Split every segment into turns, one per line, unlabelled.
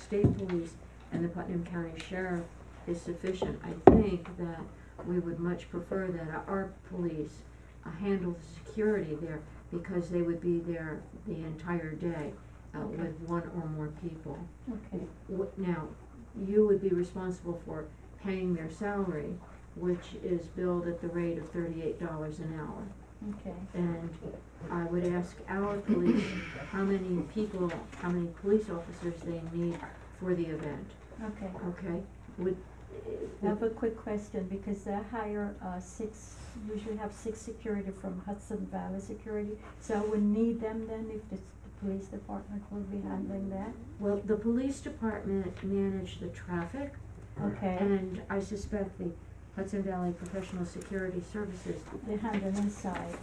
state police and the Putnam County Sheriff is sufficient. I think that we would much prefer that our police uh, handle the security there because they would be there the entire day uh, with one or more people.
Okay,
Wh- Now, you would be responsible for paying their salary, which is billed at the rate of thirty-eight dollars an hour.
okay.
And I would ask our police how many people, how many police officers they need for the event,
Okay,
okay? Would,
I have a quick question, because they hire, uh, six, usually have six security from Hudson Valley Security, so we need them then if the, the police department will be handling that?
well, the police department manage the traffic,
Okay,
and I suspect the Hudson Valley Professional Security Services
they handle inside,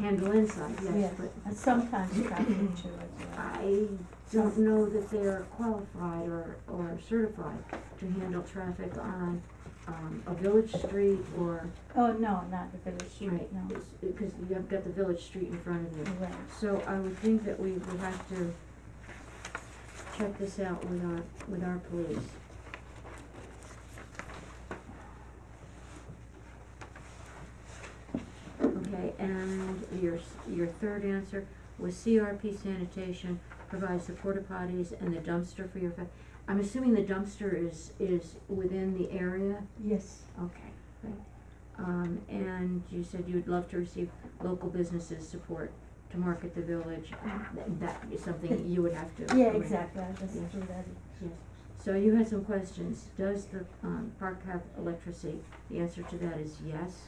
handle inside, yes,
yes,
but
and sometimes traffic too as well.
I don't know that they're qualified or, or certified to handle traffic on, um, a village street or,
Oh, no, not the village street,
right,
no,
because you've got the village street in front of you.
right,
So I would think that we would have to check this out with our, with our police. Okay, and your, s- your third answer was CRP sanitation provides the porta potties and the dumpster for your, fa- I'm assuming the dumpster is, is within the area?
yes,
Okay, great. Um, and you said you'd love to receive local businesses' support to market the village. Th- That is something you would have to.
yeah,
arrange.
exactly, I just
Yes.
do that,
Yes. So you had some questions. Does the, um, park have electricity? The answer to that is yes.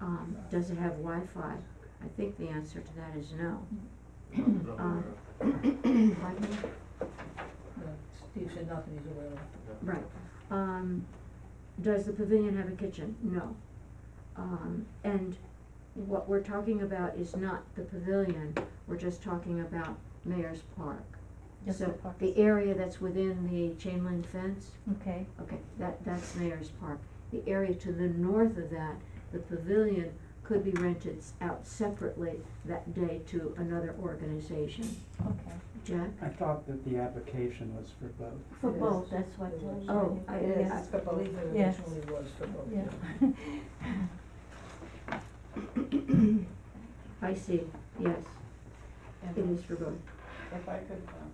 Um, does it have Wi-Fi? I think the answer to that is no.
Uh,
Um, Pardon?
No, Steve said nothing he's aware of.
Right. Um, does the pavilion have a kitchen? No. Um, and what we're talking about is not the pavilion, we're just talking about Mayor's Park.
just the
So
park.
the area that's within the chain link fence,
Okay,
okay, that, that's Mayor's Park. The area to the north of that, the pavilion could be rented s- out separately that day to another organization.
okay,
Jack?
I thought that the application was for both.
for
Yes.
both, that's what.
It was.
Oh, I-
Yes.
I-
I believe it
Yes.
originally was for both.
Yeah.
I see, yes, it
And
is for both.
if I could, um,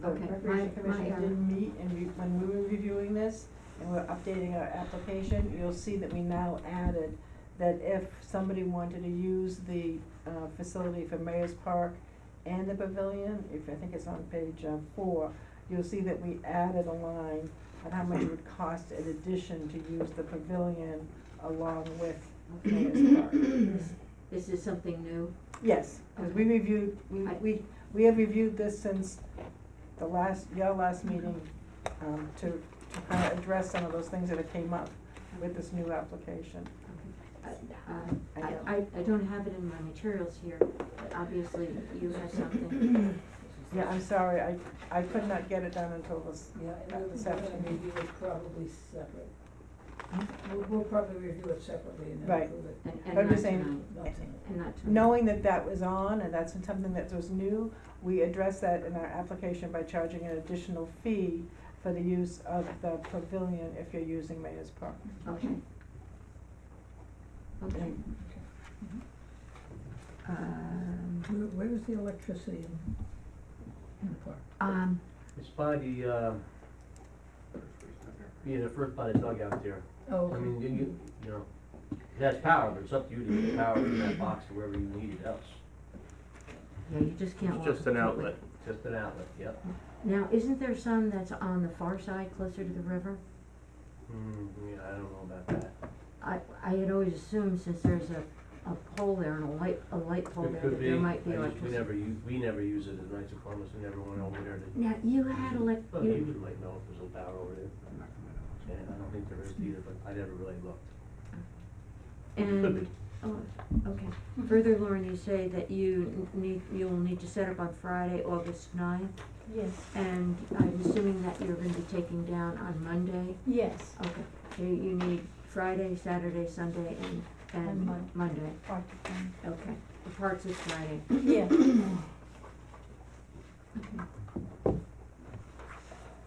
the
Okay, my-
Recreation
my, uh,
Commission did meet and re- when we were reviewing this and we're updating our application, you'll see that we now added that if somebody wanted to use the, uh, facility for Mayor's Park and the pavilion, if, I think it's on page, uh, four, you'll see that we added a line on how much it would cost in addition to use the pavilion along with Mayor's Park.
This is something new?
Yes, because we reviewed, we,
I-
we, we have reviewed this since the last, your last meeting, um, to, to kind of address some of those things that have came up with this new application.
I, Uh, I, I don't have it in my materials here, but obviously you have something.
Yeah, I'm sorry, I, I could not get it done until this,
Yeah, and we we're gonna
Separate.
review it probably separate. We'll, we'll probably review it separately and then
Hmm? Right.
approve it.
And,
I'm
and not
just saying-
tonight,
Not tonight.
and not tonight.
knowing that that was on and that's something that was new, we addressed that in our application by charging an additional fee for the use of the pavilion if you're using Mayor's Park.
Okay. Okay.
Mm-hmm.
Um,
Where, where is the electricity in, in the park?
um,
It's by the, uh, yeah, the first by the dugout there.
Oh,
I
okay.
mean, you, you, you know, that's power, but it's up to you to get power in that box or wherever you need it else.
yeah, you just can't walk.
It's just an
the foot with-
outlet.
Just an outlet, yep.
Now, isn't there some that's on the far side closer to the river?
Hmm, yeah, I don't know about that.
I, I had always assumed since there's a, a pole there and a light, a light pole
It
there, that
could be,
Oh, there
I
might be
just, we
electricity.
never use, we never use it at Knights of Columbus, we never went over there to.
Now, you had elec,
But
you-
you might know if there's a power over there, and I don't think there is either, but I never really looked. Could
And,
be.
oh, okay. Further, Lauren, you say that you n- need, you'll need to set up on Friday, August ninth,
yes,
and I'm assuming that you're gonna be taking down on Monday?
yes.
Okay, you, you need Friday, Saturday, Sunday, and, and
And Mon-
Monday,
part of them.
okay. The parts is Friday.
Yeah,